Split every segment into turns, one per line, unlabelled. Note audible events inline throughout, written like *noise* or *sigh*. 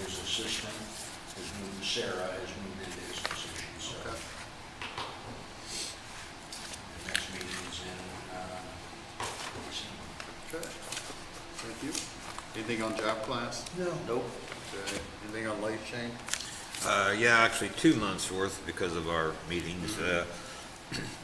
assistant has moved, Sarah has moved into his position, so.
Okay.
The next meeting's in, uh, December.
Okay, thank you. Anything on job class?
No.
Nope. Okay, anything on life change?
Uh, yeah, actually, two months' worth because of our meetings. Uh,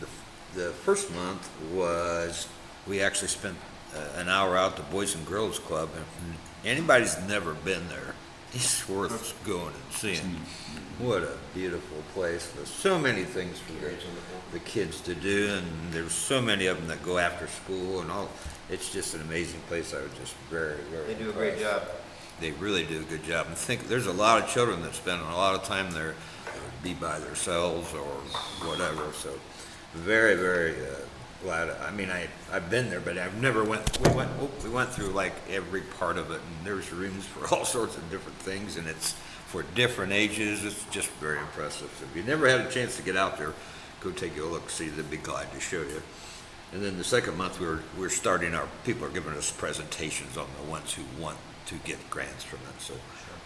the- The first month was, we actually spent uh, an hour out at the Boys and Girls Club. and Anybody's never been there, it's worth going and seeing. What a beautiful place, there's so many things for the, the kids to do, and there's so many of them that go after school and all. It's just an amazing place, I was just very, very
They do a great
impressed
job.
they really do a good job. And think, there's a lot of children that spend a lot of time there, uh, be by themselves or whatever, so very, very uh, glad. I mean, I, I've been there, but I've never went, we went, oh, we went through like every part of it, and there's rooms for all *laughs* sorts of different things, and it's for different ages, it's just very impressive. So if you never had a chance to get out there, go take a look, see, they'd be glad to show you. And then the second month, we we're, we we're starting our, people are giving us presentations on the ones who want to get grants from it, so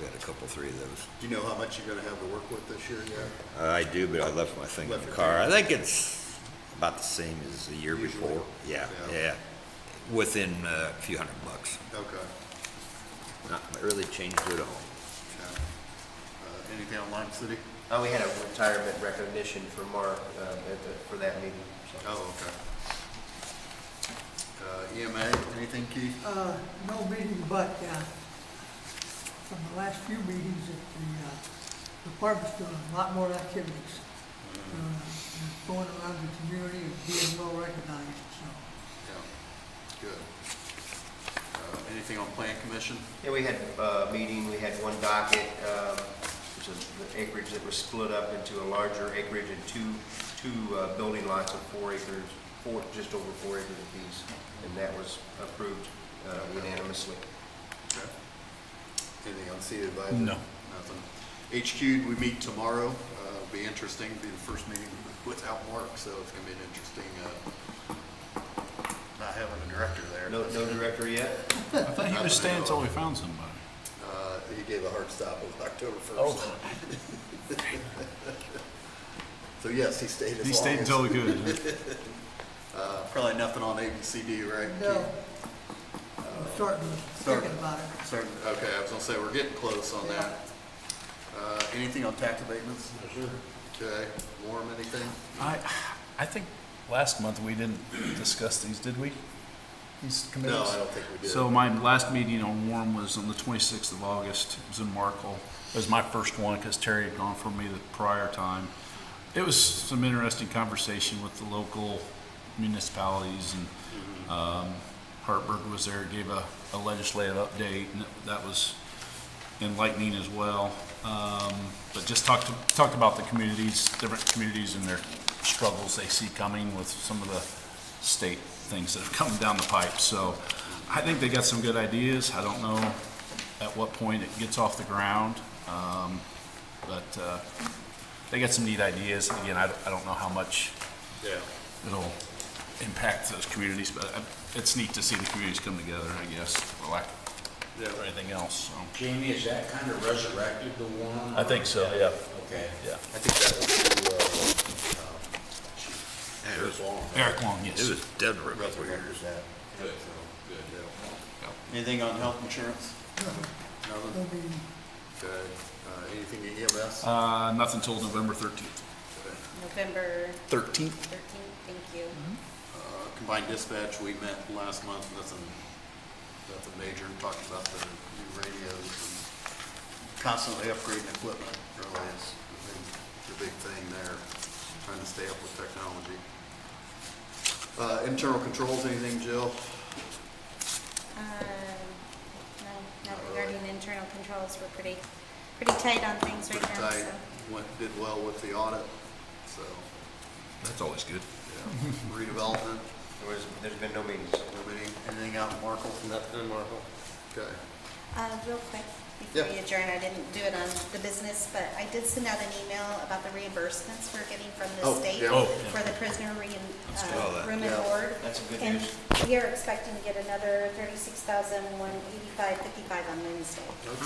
we had a couple, three of those.
Do you know how much you're gonna have to work with this year yet?
I do, but I left my thing in
Left
the
it
car.
there.
I think it's about the same as the year
Usually.
before. Yeah,
Yeah.
yeah, within uh, a few hundred bucks.
Okay.
Not really changed at all.
okay. Uh, Anything on Lime City?
Uh, we had a retirement recognition for Mark, um, at the, for that meeting, so.
Oh, okay. Uh, EMA, anything, Keith?
Uh, no meeting, but, uh, from the last few meetings, that the, uh, department's doing a lot more activities. Uh, Going around the community and being well recognized, so.
Yeah, good. Uh, Anything on Plan Commission?
Yeah, we had uh, a meeting, we had one docket, um, which is the acreage that was split up into a larger acreage and two, two uh, building lots of four acres, four, just over four acres apiece, and that was approved uh, unanimously.
Okay. Anything on City Advisor? No. Nothing. HQ, we meet tomorrow. Uh, It'll be interesting, be the first meeting without Mark, so it's gonna be an interesting, uh, not having a director there.
No, no director yet?
I thought he was staying until we found somebody.
Uh, He gave a hard stop on October first.
Oh.
*laughs* So yes, he stayed as long as.
He stayed until we could. huh?
*laughs* Uh, Probably nothing on ABCD, right?
No,
Keith?
I'm starting to
Sorry.
thinking about it.
Certain- Okay, I was gonna say, we're getting close on that. Uh, Anything on tax abatements? Okay, Warm, anything?
I, I think last month we didn't discuss these, did we? These committees?
No, I don't think we did.
So my last meeting on Warm was on the 26th of August. It was in Markle. It was my first one because Terry had gone for me the prior time. It was some interesting conversation with the local municipalities and
Mm-hmm.
um, Hartburg was there, gave a a legislative update, and that was enlightening as well. Um, But just talked, talked about the communities, different communities and their struggles they see coming with some of the state things that have come down the pipe. So I think they got some good ideas. I don't know at what point it gets off the ground, um, but uh, they got some neat ideas. Again, I I don't know how much
Yeah.
it'll impact those communities, but uh, it's neat to see the communities come together, I guess, for lack
Yeah.
of anything else, so.
Jamie, is that kind of resurrected the one?
I think so, yeah.
Okay.
Yeah.
I think that uh, was, uh, um,
Chris Long.
Eric Long, yes.
It was dead real weird.
Resurrected that. Good, good. Anything on health insurance?
No
Nothing?
meeting.
Okay. Uh, Anything in EMS?
Uh, nothing till November thirteenth.
Okay.
November
Thirteenth?
13th, thank you.
Uh, Combined dispatch, we met last month, and that's a, that's a major, talked about the new radios and constantly upgrading equipment, really is the big, the big thing there, trying to stay up with technology. Uh, internal controls, anything, Jill?
Um, no, Not regarding internal controls, we're pretty, pretty tight on things right now,
Tight,
so.
went, did well with the audit, so,
That's always good.
yeah, redevelopment,
There was, there's been no meetings.
nobody, anything out in Markle?
Nothing, Marvel.
Okay,
Uh, real quick, before
Yeah.
we adjourn, I didn't do it on the business, but I did send out an email about the reimbursements we're getting from the
Oh,
state
yeah. Oh,
yeah.
for the prisoner rein-
all
uh,
that.
room and
Yeah.
board.
That's a good
And
news.
we are expecting to get another 36,185.55 on Wednesday.